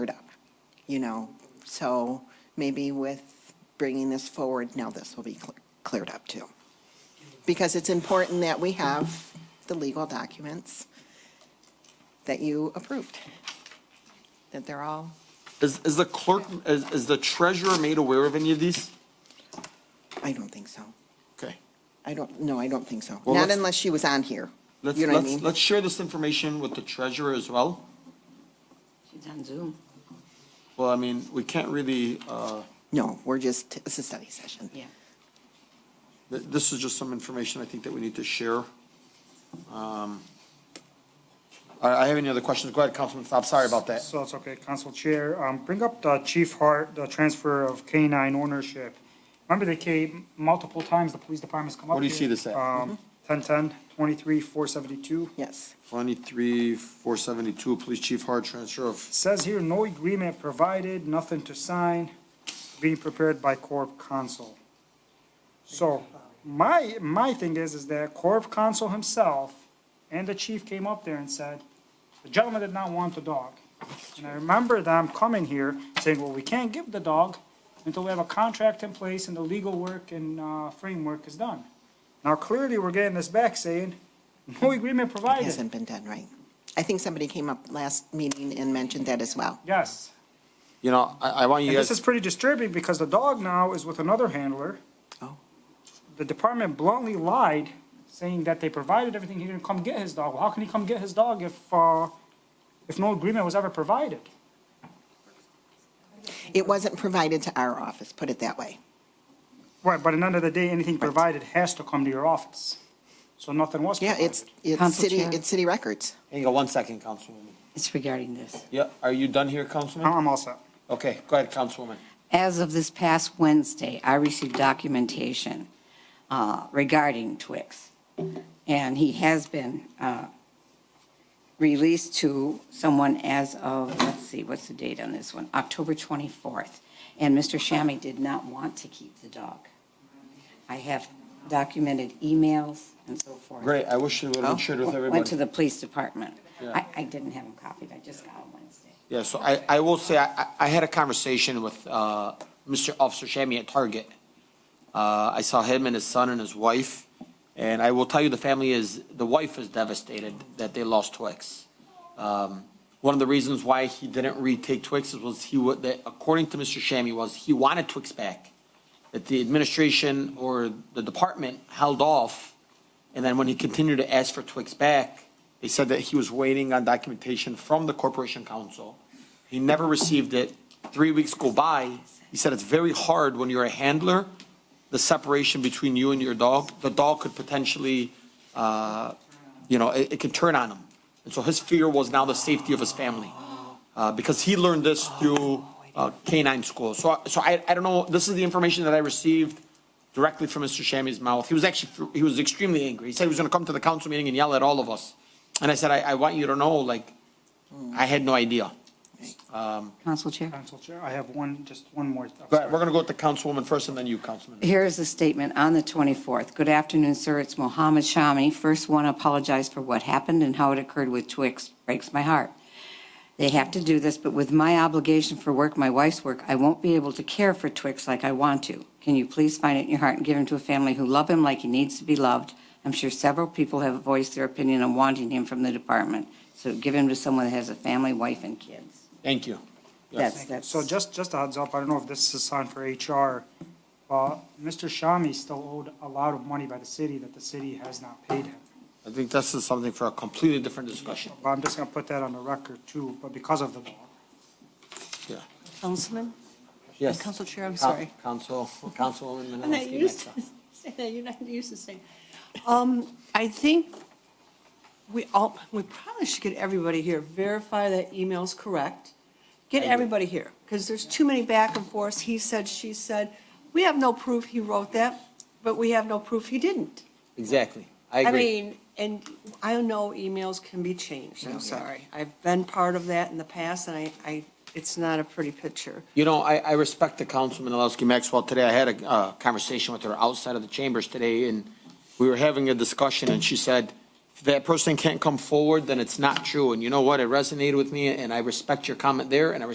you know, so maybe with bringing this forward, now this will be cl- cleared up too. Because it's important that we have the legal documents that you approved, that they're all, Is, is the clerk, is, is the treasurer made aware of any of these? I don't think so. Okay. I don't, no, I don't think so. Well, Not let's- unless she was on here. Let's, You know what I mean? let's, let's share this information with the treasurer as well. She's on Zoom. Well, I mean, we can't really, uh, No, we're just, it's a study session. Yeah. th- this is just some information I think that we need to share. Um, I, I have any other questions? Go ahead, Councilman Saab, sorry about that. So it's okay, Council Chair. Um, Bring up the Chief Hart, the transfer of canine ownership. Remember they came multiple times, the police department's come up What do you here, see this at? um, 1010, 23,472. Yes. Twenty-three, four seventy-two, Police Chief Hart, transfer of, Says here, no agreement provided, nothing to sign, being prepared by Corp Counsel. So my, my thing is, is that Corp Counsel himself and the chief came up there and said, the gentleman did not want the dog. And I remember them coming here saying, well, we can't give the dog until we have a contract in place and the legal work and, uh, framework is done. Now clearly, we're getting this back saying, no agreement It provided. hasn't been done right. I think somebody came up last meeting and mentioned that as well. Yes. you know, I, I want you And guys. this is pretty disturbing because the dog now is with another handler. Oh. The department bluntly lied, saying that they provided everything, he didn't come get his dog. Well, how can he come get his dog if, uh, if no agreement was ever provided? It wasn't provided to our office, put it that way. Right, but at the end of the day, anything provided has to come to your office. So nothing was Yeah, provided. it's, it's Council city, Chair. it's city records. Hang on one second, Councilwoman. It's regarding this. Yeah, are you done here, Councilman? I'm all set. Okay, go ahead, Councilwoman. As of this past Wednesday, I received documentation uh, regarding Twix. And he has been uh, released to someone as of, let's see, what's the date on this one? October 24th. And Mr. Shammy did not want to keep the dog. I have documented emails and so forth. Great, I wish you would have shared with Went to everybody. the police department. Yeah. I, I didn't have them copied, I just got them Wednesday. Yeah, so I, I will say, I, I- I had a conversation with, uh, Mr. Officer Shammy at Target. Uh, I saw him and his son and his wife, and I will tell you, the family is, the wife is devastated that they lost Twix. Um, one of the reasons why he didn't retake Twix is was he would, that according to Mr. Shammy, was he wanted Twix back. That the administration or the department held off, and then when he continued to ask for Twix back, they said that he was waiting on documentation from the Corporation Council. He never received it. Three weeks go by. He said it's very hard when you're a handler, the separation between you and your dog. The dog could potentially, uh, you know, it, it could turn on him. And so his fear was now the safety of his family, uh, because he learned this through uh, canine school. So, so I, I don't know, this is the information that I received directly from Mr. Shammy's mouth. He was actually, he was extremely angry. He said he was gonna come to the council meeting and yell at all of us. And I said, I, I want you to know, like, I had no idea. Council Chair? Council Chair, I have one, just one more. I'm But we're sorry. gonna go with the councilwoman first and then you, councilman. Here is the statement on the 24th. Good afternoon, sir. It's Mohammed Shami. First, want to apologize for what happened and how it occurred with Twix. Breaks my heart. They have to do this, but with my obligation for work, my wife's work, I won't be able to care for Twix like I want to. Can you please find it in your heart and give him to a family who love him like he needs to be loved? I'm sure several people have voiced their opinion on wanting him from the department. So give him to someone that has a family, wife, and kids. Thank you. That's, that's. So just, just a heads up, I don't know if this is on for HR, but Mr. Shami still owed a lot of money by the city that the city has not paid him. I think this is something for a completely different discussion, But I'm just gonna put that on the record too, but because of the dog. yeah. Councilman? Yes. Council Chair, I'm Coun- sorry. Council, Councilwoman Menalowski. I'm not next used to up. saying that, you're not used to saying. Um, I think we all, we probably should get everybody here, verify that email's correct. Get everybody here, because there's too many back and forths, he said, she said. We have no proof he wrote that, but we have no proof he didn't. Exactly, I I agree. mean, and I know emails can be changed, I'm Mm-hmm. sorry. I've been part of that in the past, and I, I, it's not a pretty picture. You know, I, I respect the Councilman Menalowski Maxwell today. I had a, uh conversation with her outside of the chambers today, and we were having a discussion, and she said, if that person can't come forward, then it's not true. And you know what? It resonated with me, and I respect your comment there, and I